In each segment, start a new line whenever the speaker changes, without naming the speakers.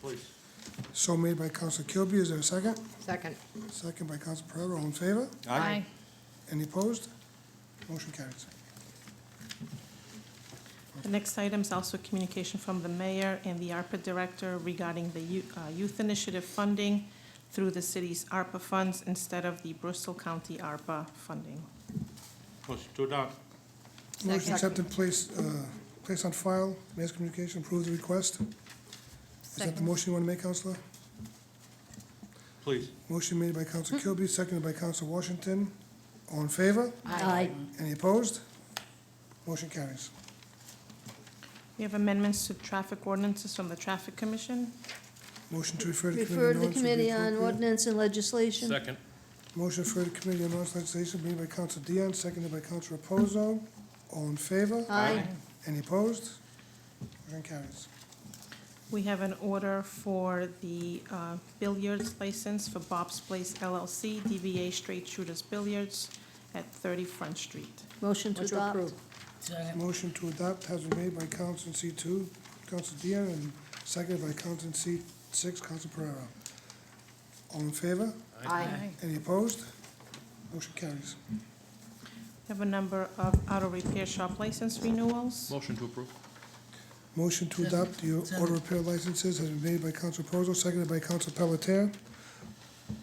please.
So made by Counsel Kilby, is there a second?
Second.
Second by Counsel Pereira, all in favor? Any opposed? Motion carries.
The next item is also communication from the mayor and the ARPA director regarding the you- uh, youth initiative funding through the city's ARPA funds instead of the Bristol County ARPA funding.
Motion to adopt.
Motion
Second.
accepted, place, uh, place on file, mass communication, approve the request. Is that the motion you want to make, Counselor?
Please.
Motion made by Counsel
Mm-hmm.
Kilby, seconded by Counsel Washington. All in favor?
Aye.
Any opposed? Motion carries.
We have amendments to traffic ordinances from the Traffic Commission.
Motion to refer to committee
Refer
on
to
ordinance would
the
be
Committee on
appropriate.
Ordinance and Legislation.
Second.
Motion for the Committee on Ordinance Legislation made by Counsel Dion, seconded by Counsel Reposo. All in favor?
Aye.
Any opposed? Motion carries.
We have an order for the uh, billiards license for Bob's Place LLC, DBA Straight Shooters Billiards at 30 Front Street.
Motion to
Motion to
adopt.
approve.
Motion to adopt has been made by Counsel C two, Counsel Dion, and seconded by Counsel C six, Counsel Pereira. All in favor?
Aye.
Any opposed? Motion carries.
We have a number of auto repair shop license renewals.
Motion to approve.
Motion to adopt the auto repair licenses has been made by Counsel Reposo, seconded by Counsel Pelletier.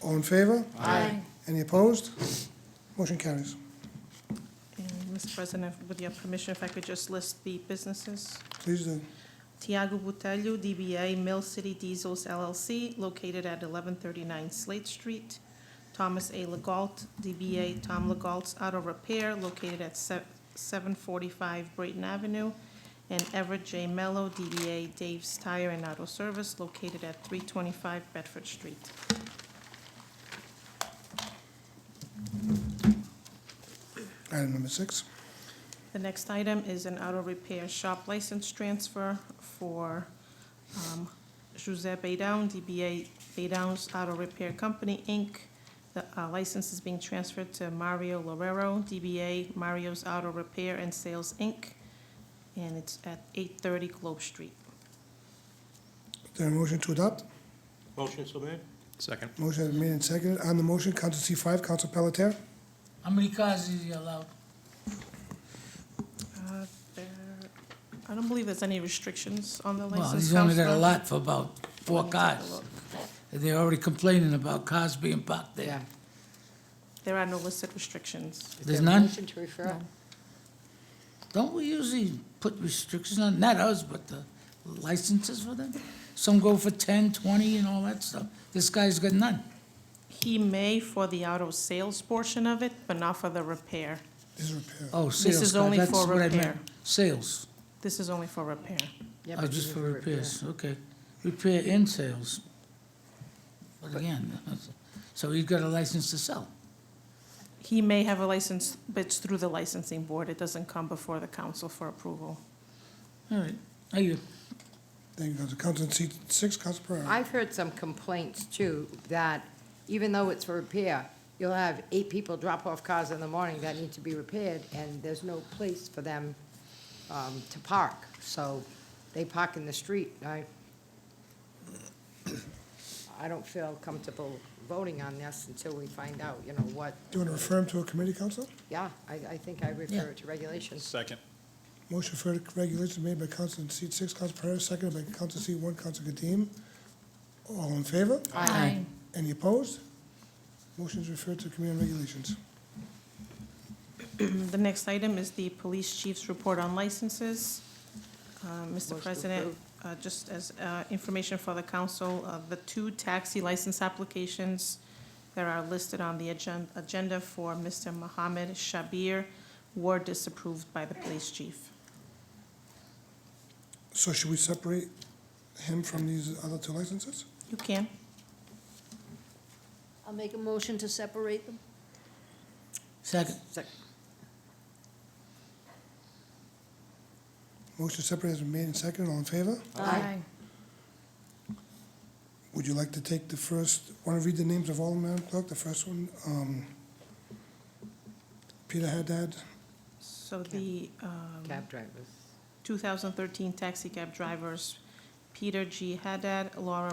All in favor?
Aye.
Any opposed? Motion carries.
And, Mr. President, with your permission, if I could just list the businesses.
Please uh, do.
Tiago Botelho, DBA Mill City Diesels LLC, located at 1139 Slate Street. Thomas A. Legault, DBA Tom Legault's Auto Repair, located at se- 745 Brayton Avenue. And Everett J. Mello, DBA Dave's Tire and Auto Service, located at 325 Bedford Street.
Item number six.
The next item is an auto repair shop license transfer for um, Giuseppe Down, DBA Baydown's Auto Repair Company, Inc. The uh, license is being transferred to Mario Lorero, DBA Mario's Auto Repair and Sales, Inc., and it's at 830 Globe Street.
Is there a motion to adopt?
Motion so made.
Second.
Motion has been made and seconded. On the motion, Counsel C five, Counsel Pelletier.
How many cars is he allowed?
Uh, there- I don't believe there's any restrictions on the
Well,
license.
he's only got a
Counselor.
lot for about four cars. They're already complaining about cars being parked
Yeah.
there.
There are no listed restrictions.
Is
There's
there a
none?
Motion to refer.
Don't we usually put restrictions on, not us, but the licenses for them? Some go for 10, 20, and all that stuff. This guy's got none.
He may for the auto sales portion of it, but not for the repair.
This is repair.
Oh, sales
is
car,
only
that's
for
what I meant.
repair.
Sales,
This is only for repair.
Yeah,
oh,
but
just
you
for
refer.
repairs, okay. Repair and sales. But again, so he's got a license to sell.
He may have a license, but it's through the licensing board. It doesn't come before the council for approval.
All right, are you?
Thank you, Counsel. Counsel C six, Counsel Pereira.
I've heard some complaints too, that even though it's for repair, you'll have eight people drop off cars in the morning that need to be repaired, and there's no place for them um, to park. So they park in the street. I, I don't feel comfortable voting on this until we find out, you know, what,
Do you want to refer him to a committee, Counsel?
yeah, I, I think I refer it to regulations.
Second.
Motion for regulations made by Counsel C six, Counsel Pereira, seconded by Counsel C one, Counsel Kadim. All in favor?
Aye.
Any opposed? Motion is referred to Committee on Regulations.
Mm, The next item is the police chief's report on licenses. Uh,
Motion
Mr.
to
President,
approve.
uh, just as uh, information for the council, uh, the two taxi license applications that are listed on the agen- agenda for Mr. Mohammed Shabir were disapproved by the police chief.
So should we separate him from these other two licenses?
You can.
I'll make a motion to separate them.
Second.
Sec-
Motion to separate has been made and seconded. All in favor?
Aye.
Would you like to take the first, want to read the names of all, Madam Clerk? The first one, um, Peter Haddad,
So the um,
Cab drivers.
2013 taxi cab drivers, Peter G. Haddad, Laura